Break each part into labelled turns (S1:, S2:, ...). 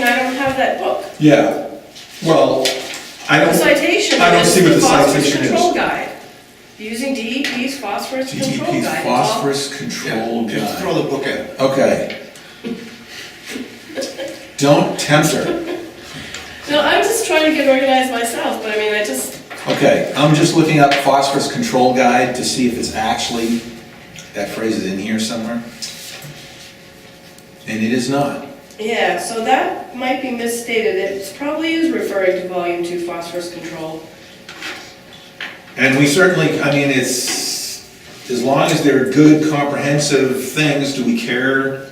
S1: have that book,
S2: Yeah, well, I
S1: the
S2: don't,
S1: citation.
S2: I don't
S1: is
S2: see what the
S1: phosphorus
S2: citation is.
S1: Control guide, using DEP's phosphorus control
S2: DEP's
S1: guide.
S2: phosphorus control
S3: Yeah, just
S2: guide.
S3: throw the book at it.
S2: Okay. Don't tempt her.
S1: No, I'm just trying to get organized myself, but I mean, I just,
S2: Okay, I'm just looking up phosphorus control guide to see if it's actually, that phrase is in here somewhere. And it is not.
S1: yeah, so that might be misstated, it probably is referring to volume two phosphorus control.
S2: And we certainly, I mean, it's, as long as they're good comprehensive things, do we care?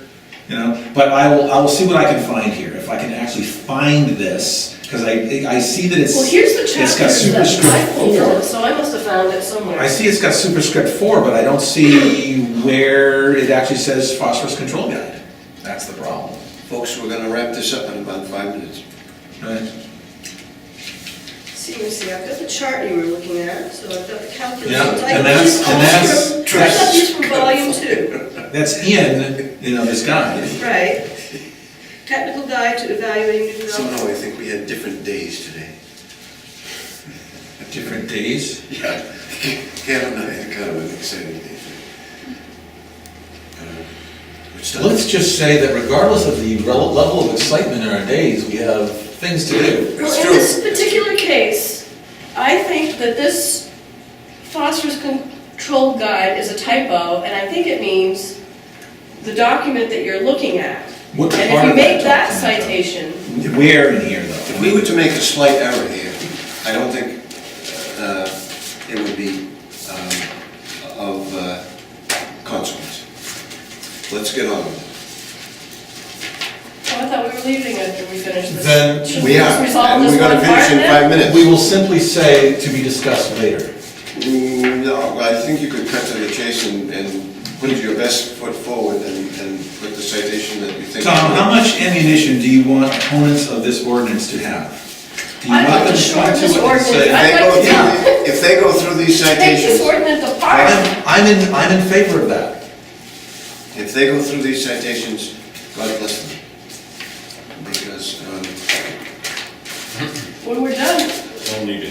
S2: You know, but I will, I will see what I can find here, if I can actually find this, because I, I see that it's.
S1: Well, here's the
S2: It's got
S1: chapter that I
S2: superscript
S1: pulled,
S2: four.
S1: so I must have found it somewhere.
S2: I see it's got superscript four, but I don't see where it actually says phosphorus control guide. That's the problem.
S3: Folks, we're gonna wrap this up in about five minutes.
S2: Right?
S1: See, let me see, I've got the chart you were looking at, so I've got the
S2: Yeah,
S1: calculations.
S2: and
S1: I got
S2: that's-
S1: these
S2: and
S1: all
S2: that's-
S1: from- I got these from volume two,
S2: That's in, you know, this guide.
S1: right. Technical guide to evaluating new development.
S3: Somehow I think we had different days today.
S2: Different days.
S3: Yeah. Kevin and I had kind of an exciting day. Uh, Which
S2: Let's
S3: does,
S2: just say that regardless of the rel- level of excitement in our days, we have things to do.
S1: Well,
S3: It's
S1: in
S3: true.
S1: this particular case, I think that this phosphorus control guide is a typo, and I think it means the document that you're looking at.
S2: What
S1: And if
S2: part
S1: you
S2: of that
S1: make that
S2: document, though?
S1: citation, oh,
S2: Where in here
S3: if
S2: though?
S3: we were to make a slight error here, I don't think uh, it would be um, of uh, consequence. Let's get on with it.
S1: oh, I thought we were leaving after we finished this.
S2: Then
S1: Should
S3: We
S1: just
S3: are,
S1: resolve
S3: and
S1: this
S3: we're gonna
S1: one part
S3: finish in
S1: then?
S3: five minutes.
S2: We will simply say to be discussed later.
S3: Mm, No, I think you could cut to the chase and, and put your best foot forward and, and put the citation that you think.
S2: Tom, how much ammunition do you want opponents of this ordinance to have? Do you
S1: I'm
S2: want
S1: not
S2: them to
S1: sure
S2: come to
S1: this
S2: it and
S1: ordinance-
S3: If they
S2: say,
S3: go
S1: I'd like to-
S3: through- If they go through these
S1: Take this
S3: citations,
S1: ordinance apart.
S2: I'm, I'm in, I'm in favor of that.
S3: if they go through these citations, God bless them. Because, um,
S1: When we're done,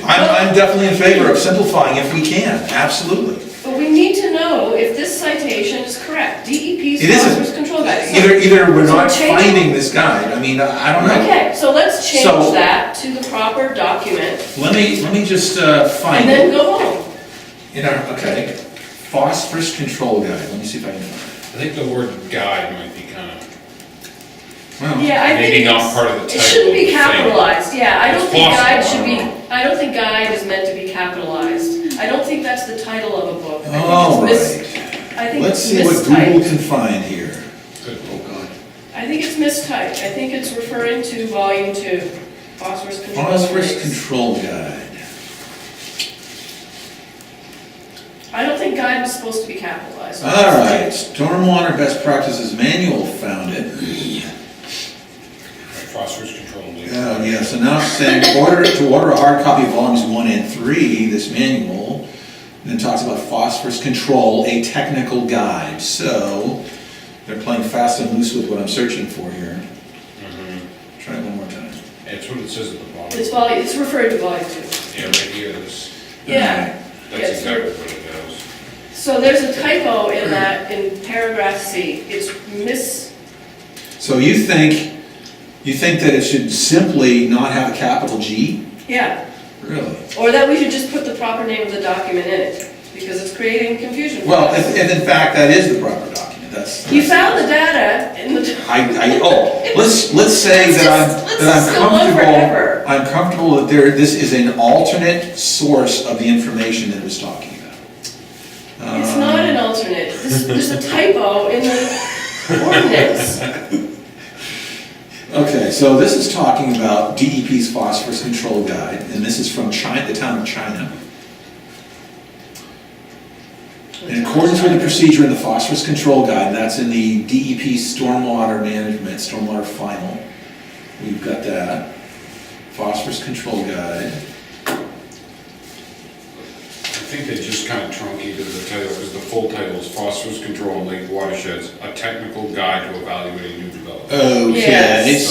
S2: I'm, I'm definitely in favor of simplifying if we can, absolutely.
S1: but we need to know if this citation is correct, DEP's
S2: It isn't.
S1: phosphorus control guide. So-
S2: Either, either we're
S1: So
S2: not
S1: change-
S2: finding this guide, I mean, I I don't know.
S1: Okay, so let's change
S2: So-
S1: that to the proper document,
S2: Let me, let me just uh,
S1: and
S2: find
S1: then
S2: it.
S1: go home.
S2: In our, okay, phosphorus control guide, let me see if I can find
S4: I think the word guide might be kind of,
S2: it. Well,
S1: Yeah, I think.
S4: Maybe not
S1: it's-
S4: part of the
S1: It
S4: title
S1: shouldn't be
S4: of the thing.
S1: capitalized, yeah, I don't
S4: It's
S1: think
S4: possible,
S1: guide
S4: I
S1: should be,
S4: don't
S1: I don't think guide is meant to be capitalized. I don't think that's the title of a book. I think it's
S2: all
S1: mis-
S2: right.
S1: I think it's
S2: Let's see what Google
S1: mistyped.
S2: can find here.
S4: good.
S3: oh God.
S1: I think it's mistyped, I think it's referring to volume two, phosphorus control.
S2: Phosphorus
S1: Index.
S2: control guide.
S1: I don't think guide was supposed to be capitalized.
S2: All right, stormwater best practices manual found it.
S4: Phosphorus control.
S2: Oh, yeah, so now it's saying order to order a hard copy of volumes one and three, this manual. Then talks about phosphorus control, a technical guide. So they're playing fast and loose with what I'm searching for here.
S4: Mhm.
S2: Try it one more time.
S4: That's what it says at the bottom.
S1: It's volume, it's referring to volume two.
S4: Yeah, right here, this,
S1: Yeah.
S4: that's
S1: Yes.
S4: exactly what it does.
S1: So there's a typo in that, in paragraph C. It's mis,
S2: So you think, you think that it should simply not have a capital G?
S1: yeah,
S2: Really?
S1: or that we should just put the proper name of the document in it, because it's creating confusion.
S2: Well, if, if in fact that is the proper document, that's.
S1: You found the data in the,
S2: I, I, oh, let's, let's say
S1: Let's
S2: that I'm,
S1: just- let's
S2: that I'm
S1: just go on forever.
S2: comfortable, I'm comfortable that there, this is an alternate source of the information that it was talking about. Uh.
S1: it's not an alternate, This- there's a typo in the ordinance.
S2: Okay, so this is talking about DEP's phosphorus control guide, and this is from China, the town of China. In accordance with the procedure in the phosphorus control guide, that's in the DEP stormwater management, stormwater final. We've got that. Phosphorus control guide.
S4: I think they just kind of truncated the title, because the full title is Phosphorus Control in Lake Watersheds, a technical guide to evaluating new development.
S2: Okay,
S1: Yes.
S2: so